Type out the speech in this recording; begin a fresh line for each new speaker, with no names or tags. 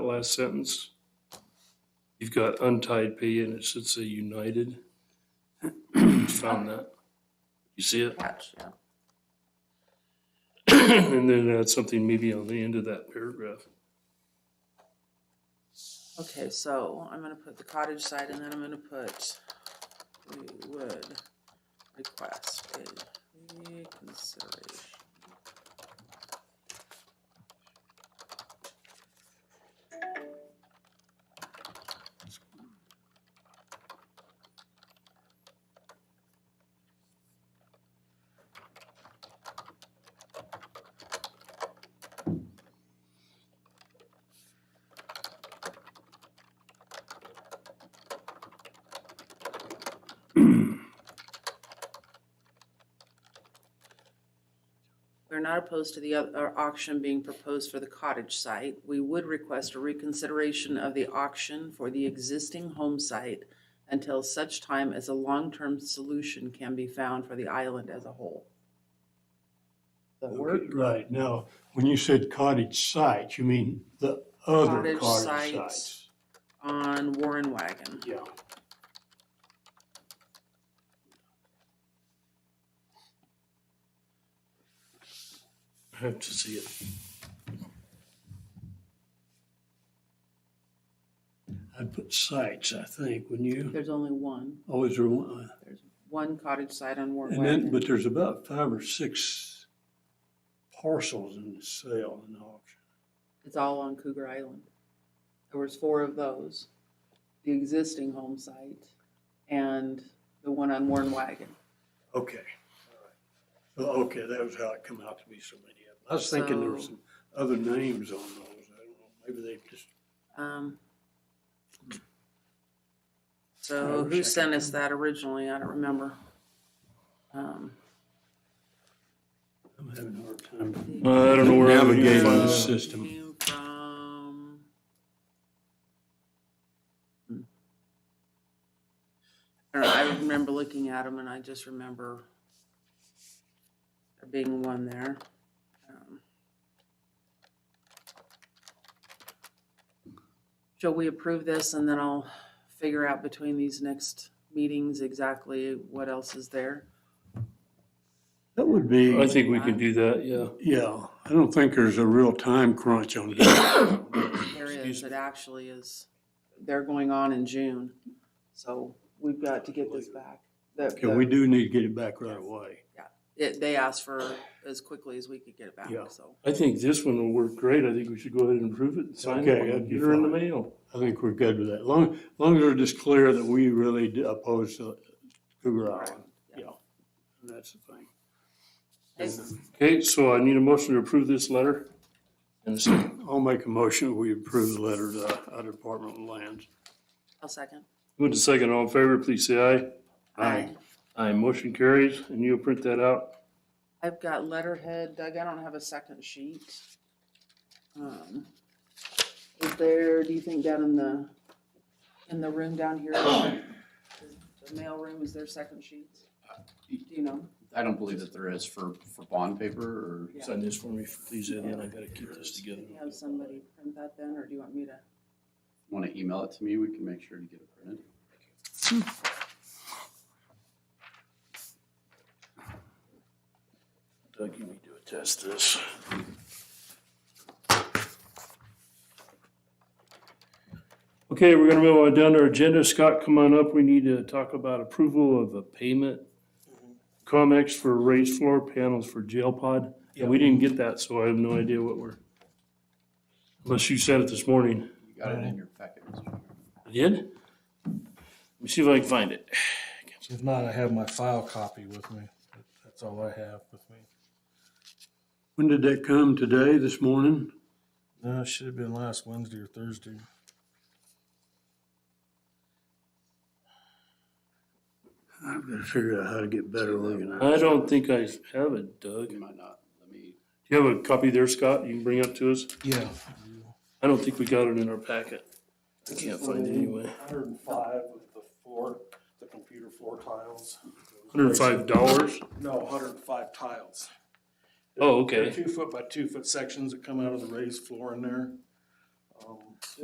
last sentence. You've got untied P and it should say United. Found that. You see it?
Gotcha.
And then add something maybe on the end of that paragraph.
Okay, so I'm gonna put the cottage side and then I'm gonna put, we would request a reconsideration. We're not opposed to the oth- uh, auction being proposed for the cottage site. We would request a reconsideration of the auction for the existing home site until such time as a long-term solution can be found for the island as a whole. The work,
Right, now, when you said cottage site, you mean the other
Cottage
cottage
sites.
sites?
on Warren Wagon.
Yeah.
I have to see it.
I'd put sites, I think, wouldn't you?
There's only one,
Always, are one-
there's one cottage site on Warren
and then,
Wagon.
but there's about five or six parcels in the sale and auction.
It's all on Cougar Island. There was four of those, the existing home site and the one on Warren Wagon.
Okay. all right. Well, okay, that was how it come out to be so many of them. I was thinking there were
So-
some other names on those. I don't know, maybe they just,
Um,
I
So
wish I
who
could
sent us that originally? I don't remember. Um,
I'm having a hard time
I don't know where I'm gonna
navigating
find
the
that.
system.
came From. Hmm. I don't know, I remember looking at them and I just remember there being one there. Um, Shall we approve this and then I'll figure out between these next meetings exactly what else is there?
That would be.
I think we can do that, yeah.
Yeah, I don't think there's a real time crunch on that.
There
Excuse
is, it actually is, they're going on in June, so we've got to get this back. The-
Okay, we
the-
do need to get it back right away.
it- They asked for as quickly as we could get it back,
Yeah.
so.
I think this one will work great. I think we should go ahead and approve it and sign
Okay,
it.
that'd be
Get her in the
fine.
mail.
I think we're good with that. Long, long as we're just clear that we really do oppose the Cougar Island. Yeah, that's the thing.
Okay, so I need a motion to approve this letter. And a second.
I'll make a motion, we approve the letter to our Department of Lands.
I'll second. Um,
Move to second, all in favor, please say aye.
Aye.
Aye, motion carries, and you'll print that out.
I've got letterhead, Doug, I don't have a second sheet. Um, Is there, do you think down in the, in the room down here, the mail room, is there second sheets? Do you know?
I don't believe that there is for, for bond paper or,
Yeah.
Sign this for me, please, and then I gotta keep this together.
Can you have somebody print that then, or do you want me to?
want to email it to me, we can make sure to get it printed.
Doug, you need to attest this. Okay, we're gonna move on down to our agenda. Scott, come on up. We need to talk about approval of a payment. Mm-hmm. COMEX for raised floor panels for jail pod. And we didn't get that, so I have no idea what we're, unless you said it this morning.
You got it in your packet, Mr. Chairman.
I did? Let me see if I can find it.
If not, I have my file copy with me. That's all I have with me.
When did that come? Today, this morning?
No, it Uh, should have been last Wednesday or Thursday.
I've got to figure out how to get better looking at it.
I don't think I have it, Doug. Do
You might not, let me,
you have a copy there, Scott, you can bring up to us?
Yeah.
I don't think we got it in our packet. I can't find it anyway.
Hundred and five with the floor, the computer floor tiles.
Hundred and five dollars?
No, hundred and five tiles.
Oh,
They're
okay.
Two foot by two foot sections that come out of the raised floor in there. Um,